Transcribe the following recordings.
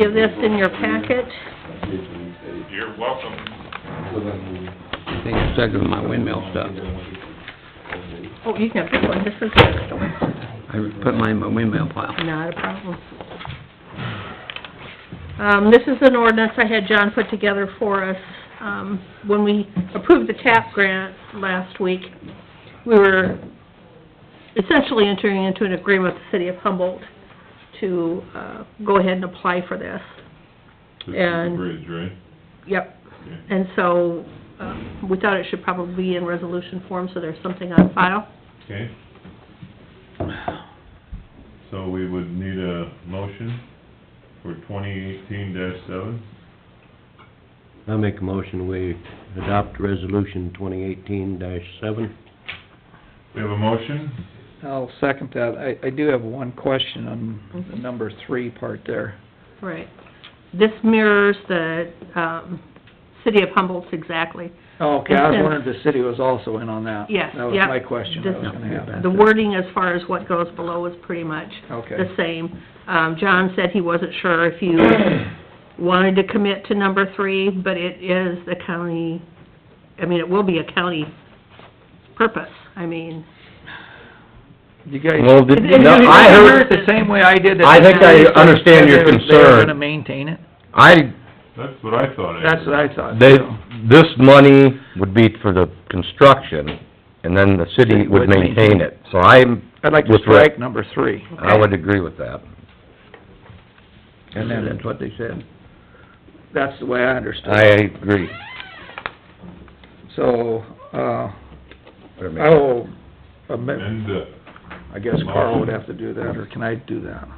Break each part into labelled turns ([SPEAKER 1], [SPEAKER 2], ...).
[SPEAKER 1] you this in your packet.
[SPEAKER 2] You're welcome.
[SPEAKER 3] I think it's stuck with my windmill stuff.
[SPEAKER 1] Oh, you can have this one, this is the other one.
[SPEAKER 3] I put mine in my windmill pile.
[SPEAKER 1] Not a problem. Um, this is an ordinance I had John put together for us. Um, when we approved the TAP grant last week, we were essentially entering into an agreement with the city of Humboldt to, uh, go ahead and apply for this.
[SPEAKER 2] This is the
[SPEAKER 1] And-
[SPEAKER 2] bridge, right?
[SPEAKER 1] Yep.
[SPEAKER 2] Okay.
[SPEAKER 1] And so, um, we thought it should probably be in resolution form, so there's something on file.
[SPEAKER 2] Okay. So we would need a motion for twenty eighteen seven.
[SPEAKER 4] I make a motion, we adopt resolution twenty eighteen seven.
[SPEAKER 2] We have a motion,
[SPEAKER 5] I'll second that. I, I do have one question on
[SPEAKER 1] Mm-hmm.
[SPEAKER 5] the number three part there.
[SPEAKER 1] Right. This mirrors the, um, city of Humboldt's exactly.
[SPEAKER 5] Oh, Okay, I was wondering if the city was also in on that.
[SPEAKER 1] Yes,
[SPEAKER 5] That was
[SPEAKER 1] yep.
[SPEAKER 5] my question I was
[SPEAKER 1] This-
[SPEAKER 5] gonna have.
[SPEAKER 1] The wording as far as what goes below is pretty much the
[SPEAKER 5] Okay,
[SPEAKER 1] same. Um, John said he wasn't sure if you wanted to commit to number three, but it is the county, I mean, it will be a county purpose, I mean.
[SPEAKER 5] you guys,
[SPEAKER 6] Well, did,
[SPEAKER 1] It's- it's
[SPEAKER 6] no,
[SPEAKER 1] gonna
[SPEAKER 6] I
[SPEAKER 1] be
[SPEAKER 6] heard,
[SPEAKER 5] heard it the same way I did. that
[SPEAKER 6] I think I
[SPEAKER 5] they said
[SPEAKER 6] understand your
[SPEAKER 5] they were- They were
[SPEAKER 6] concern.
[SPEAKER 5] gonna maintain it.
[SPEAKER 6] I,
[SPEAKER 2] that's what I thought I
[SPEAKER 5] That's what
[SPEAKER 2] heard.
[SPEAKER 5] I thought.
[SPEAKER 6] they,
[SPEAKER 5] so.
[SPEAKER 6] this money would be for the construction, and then the city would maintain it, so I'm,
[SPEAKER 5] I'd like to
[SPEAKER 6] with Rick.
[SPEAKER 5] strike number three.
[SPEAKER 6] I would agree with that.
[SPEAKER 3] And then that's what they said.
[SPEAKER 5] That's the way I understood.
[SPEAKER 6] I
[SPEAKER 5] it.
[SPEAKER 6] agree.
[SPEAKER 5] So, uh, I will, amend-
[SPEAKER 2] And, uh,
[SPEAKER 5] I guess Carl would have to do that, or can I do that?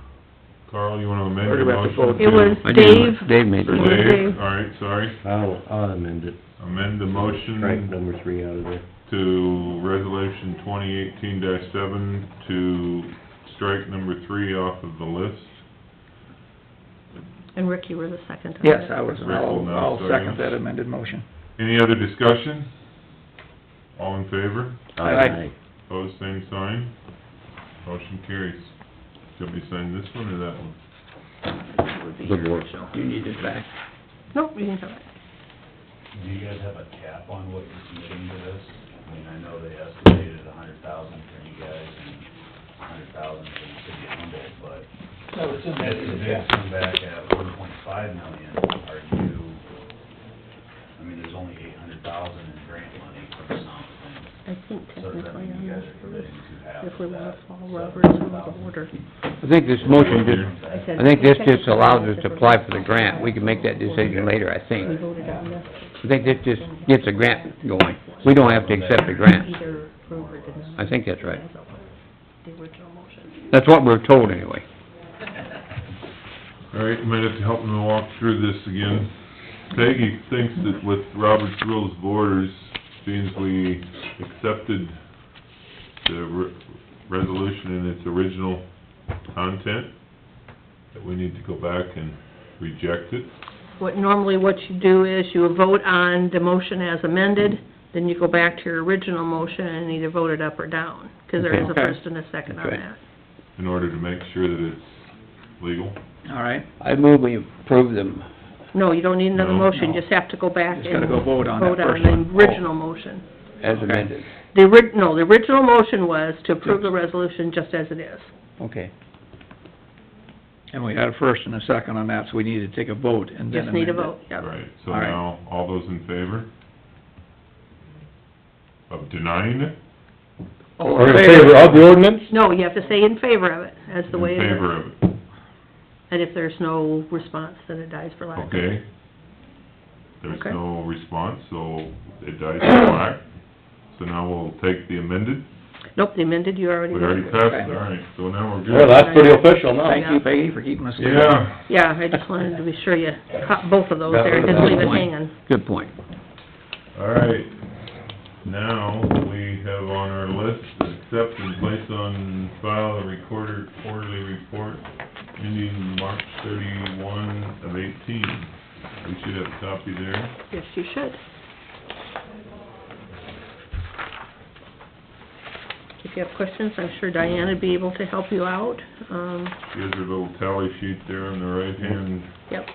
[SPEAKER 2] Carl, you wanna amend
[SPEAKER 5] Or do
[SPEAKER 2] your
[SPEAKER 5] we have to vote?
[SPEAKER 2] motion?
[SPEAKER 1] It was
[SPEAKER 3] I did
[SPEAKER 1] Dave,
[SPEAKER 3] what Dave made
[SPEAKER 2] For
[SPEAKER 1] it
[SPEAKER 3] it.
[SPEAKER 1] was
[SPEAKER 2] Dave,
[SPEAKER 1] Dave.
[SPEAKER 2] alright, sorry,
[SPEAKER 4] I'll, I'll amend it,
[SPEAKER 2] amend the
[SPEAKER 4] strike
[SPEAKER 2] motion
[SPEAKER 4] number three out of there.
[SPEAKER 2] to resolution twenty eighteen seven to strike number three off of the list.
[SPEAKER 1] and Rick, you were the second. on
[SPEAKER 5] Yes,
[SPEAKER 1] that.
[SPEAKER 5] I was,
[SPEAKER 2] Rick will
[SPEAKER 5] I'll,
[SPEAKER 2] now
[SPEAKER 5] I'll second
[SPEAKER 2] second.
[SPEAKER 5] that amended motion.
[SPEAKER 2] Any other discussion? All in favor?
[SPEAKER 5] Aye.
[SPEAKER 2] Pose same sign. Motion carries. Should we sign this one or that one?
[SPEAKER 6] Good work.
[SPEAKER 3] Do you need it back?
[SPEAKER 1] Nope, you can do it.
[SPEAKER 7] Do you guys have a cap on what you're committing to this? I mean, I know they estimated a hundred thousand for you guys and a hundred thousand for the city of Humboldt, but if the bids come back at one point five million, are you, I mean, there's only eight hundred thousand in grant money from something.
[SPEAKER 1] I think
[SPEAKER 7] So does that
[SPEAKER 1] technically
[SPEAKER 7] mean
[SPEAKER 1] on
[SPEAKER 7] you guys
[SPEAKER 1] this one,
[SPEAKER 7] are committing to half
[SPEAKER 1] if we
[SPEAKER 7] of
[SPEAKER 1] want
[SPEAKER 7] that?
[SPEAKER 1] to follow Robert's rules of order.
[SPEAKER 3] I think this motion just, I think this just allows us to apply for the grant. We can make that decision later, I
[SPEAKER 1] We
[SPEAKER 3] think.
[SPEAKER 1] voted on this.
[SPEAKER 3] I think this just gets a grant going. We don't have to accept the grant.
[SPEAKER 1] Either approve or deny.
[SPEAKER 3] I think that's right.
[SPEAKER 1] The original motion.
[SPEAKER 3] That's what we're told anyway.
[SPEAKER 2] All right, you might have to help me walk through this again. Peggy thinks that with Robert's Rules of Orders, since we accepted the re- resolution in its original content, that we need to go back and reject it.
[SPEAKER 1] What, normally what you do is you vote on the motion as amended, then you go back to your original motion and either vote it up or down, because there is a
[SPEAKER 5] Okay.
[SPEAKER 1] first and a second on
[SPEAKER 3] Okay.
[SPEAKER 1] that.
[SPEAKER 2] in order to make sure that it's legal.
[SPEAKER 5] All right,
[SPEAKER 3] I move we approve them.
[SPEAKER 1] No, you don't need another
[SPEAKER 2] No.
[SPEAKER 1] motion,
[SPEAKER 5] No.
[SPEAKER 1] you just have to go back and...
[SPEAKER 5] Just gotta go vote on that first
[SPEAKER 1] Vote on
[SPEAKER 5] one.
[SPEAKER 1] the original motion.
[SPEAKER 3] As amended.
[SPEAKER 1] The orig, no, the original motion was to approve the resolution just as it is.
[SPEAKER 3] Okay.
[SPEAKER 5] and we had a first and a second on that, so we need to take a vote and then
[SPEAKER 1] Just need
[SPEAKER 5] amend
[SPEAKER 1] a
[SPEAKER 5] it.
[SPEAKER 1] vote, yep.
[SPEAKER 2] Right, so
[SPEAKER 5] All right.
[SPEAKER 2] now, all those in favor of denying it?
[SPEAKER 5] All
[SPEAKER 6] Or
[SPEAKER 5] in
[SPEAKER 6] in favor of the ordinance?
[SPEAKER 1] No, you have to say in favor of it, as the way it is.
[SPEAKER 2] In favor of it,
[SPEAKER 1] And if there's no response, then it dies for lack of...
[SPEAKER 2] okay? There's
[SPEAKER 1] Okay.
[SPEAKER 2] no response, so it dies in black. So now we'll take the amended,
[SPEAKER 1] Nope, the amended, you already...
[SPEAKER 2] we already
[SPEAKER 1] did.
[SPEAKER 2] passed it, all right, so now we're
[SPEAKER 6] Well,
[SPEAKER 2] good.
[SPEAKER 6] that's pretty official now.
[SPEAKER 5] Thank you, Peggy, for keeping us. legal.
[SPEAKER 2] Yeah,
[SPEAKER 1] Yeah, I just wanted to be sure you caught both of those there,
[SPEAKER 3] That was
[SPEAKER 1] didn't leave
[SPEAKER 3] a
[SPEAKER 1] it
[SPEAKER 3] good point.
[SPEAKER 1] hanging.
[SPEAKER 3] Good point.
[SPEAKER 2] all right. Now, we have on our list, accept and place on file a recorder quarterly report ending March thirty-one of eighteen. We should have a copy there.
[SPEAKER 1] Yes, you should. Get if you have questions, I'm sure Diane would be able to help you out. Um,
[SPEAKER 2] Here's your little tally sheet there on the right hand
[SPEAKER 1] yep.